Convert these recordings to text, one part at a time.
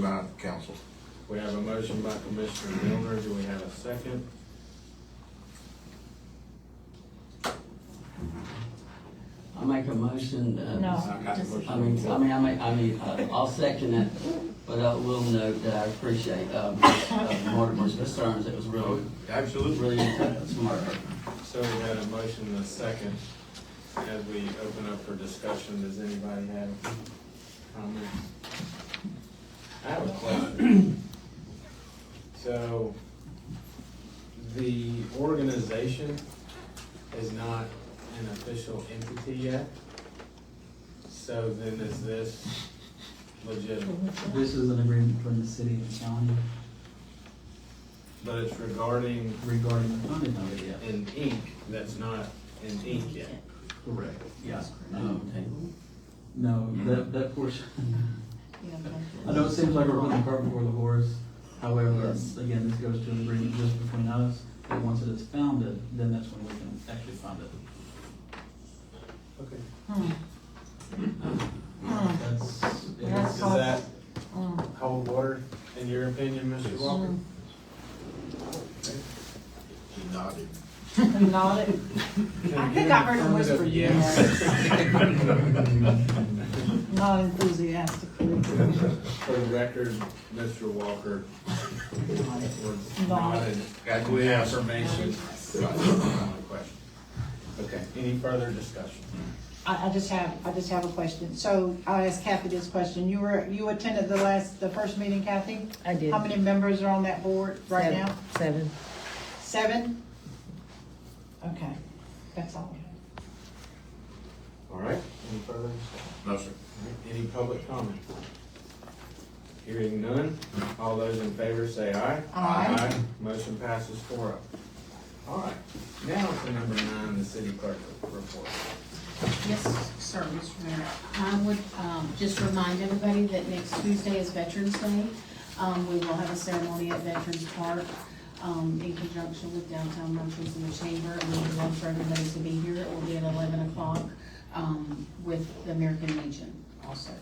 by council. We have a motion by Commissioner Milner, do we have a second? I make a motion, uh. No. I got a motion. I mean, I mean, I mean, I mean, uh, I'll second it, but I will note that I appreciate, um, uh, Mortimer's concerns, it was really, Absolutely. really smart. So we had a motion and a second. As we open up for discussion, does anybody have comments? I have a question. So the organization is not an official entity yet. So then is this legitimate? This is an agreement between the city and the county But it's regarding regarding the funding of it, yeah. an ink that's not an ink yet. Correct. Yes. Um, No, that, that portion, I I know it seems like we're putting the cart before the horse. However, that's- again, this goes to an agreement just between us, and once it is founded, then that's when we can actually fund it. Okay. That's, That's it's, Does that Mm. hold water, in your opinion, Mr. Walker? He nodded. Nodded. I think I heard him whisper yes, not enthusiastically. For the record, Mr. Walker was not Nodded. an Got to ask. affirmation. on the question. Okay, any further discussion? I, I just have, I just have a question. So I'll ask Kathy this question. You were, you attended the last, the first meeting, Kathy? I did. How many members are on that board right Seven- now? Seven. Seven? Okay, that's all. All right, any further discussion? No, sir. All right, Any public comment? Hearing none, all those in favor say aye. Aye. Motion passes four up. All right, now for number nine, the city clerk report. Yes, sir, Mr. Mayor. I would um, just remind everybody that next Tuesday is Veterans Day. Um, We will have a ceremony at Veterans Park um, in conjunction with Downtown Merchants and the Chamber. And we would love for everybody to be here. It will be at eleven o'clock um, with the American Legion also.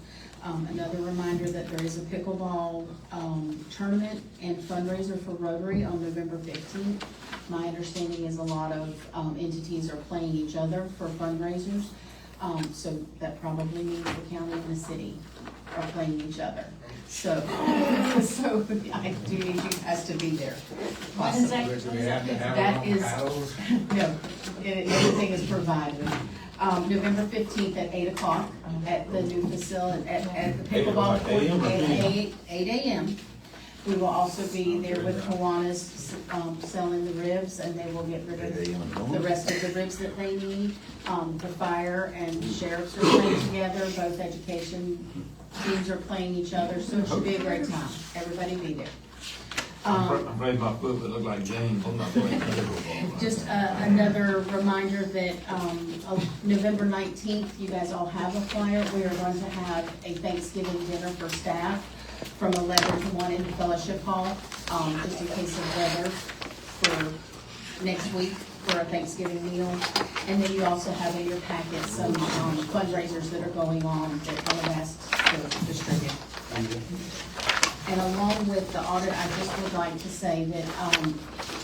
Um, Another reminder that there is a pickleball um, tournament and fundraiser for Rotary on November fifteenth. My understanding is a lot of um, entities are playing each other for fundraisers. Um, so that probably means the county and the city are playing each other. So, so I do need you guys to be there. What is that? Do we have to have That a is- paddles? No, it- everything is provided. Um, November fifteenth at eight o'clock um, at the new facility, at, at the Eight o'clock pickleball court. AM or At PM? eight, eight AM. We will also be there with Kiwanis, um, selling the ribs and they will get rid of the rest of the ribs that they need. Um, the fire and sheriffs are playing together, both education teams are playing each other, so it should be a great time. Everybody be there. Um, I'm afraid my foot would look like James. I'm not playing pickleball. just uh, another reminder that um, of November 19th, you guys all have a flyer. We are going to have a Thanksgiving dinner for staff from 11 to 1 in the fellowship hall, um, just in case of weather for next week for a Thanksgiving meal. And then you also have in your packet some um, fundraisers that are going on that I have asked to distribute. And along with the audit, I just would like to say that, um,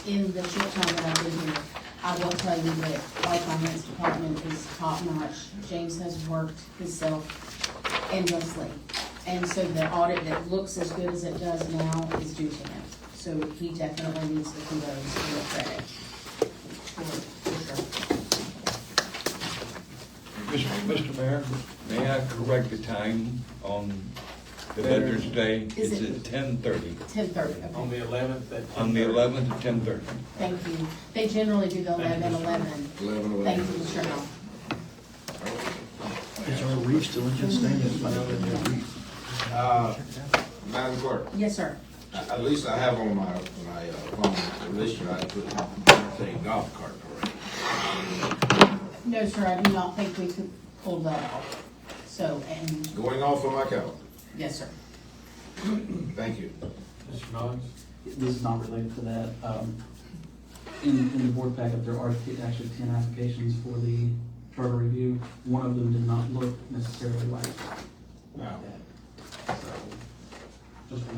in the short time that I've been here, I will tell you that our finance department is top notch. James has worked himself endlessly. And so the audit that looks as good as it does now is due to him. So he definitely needs the kudos and the credit. For, for sure. Mr. Mr. Mayor, may I correct the time on the Veterans Day? Is It's it- at ten thirty, Ten thirty, On okay, the eleventh at ten thirty? on the eleventh at ten thirty. thank you. They generally do the Thank you, eleven Mr. eleven. Eleven, Thank eleven. you, Mr. Hall. Is our reef still in good standing? Uh, Madam Clerk, Yes, sir. a- at least I have on my, my uh, phone, at least I put, say golf cart already. No, sir, I do not think we could pull that off. So, and, Going off on my calendar. yes, sir. Thank you. Mr. Mullins? This is not related to that. Um, in, in the board packet, there are t- actually ten applications for the charter review. One of them did not look necessarily like No. that. So, just for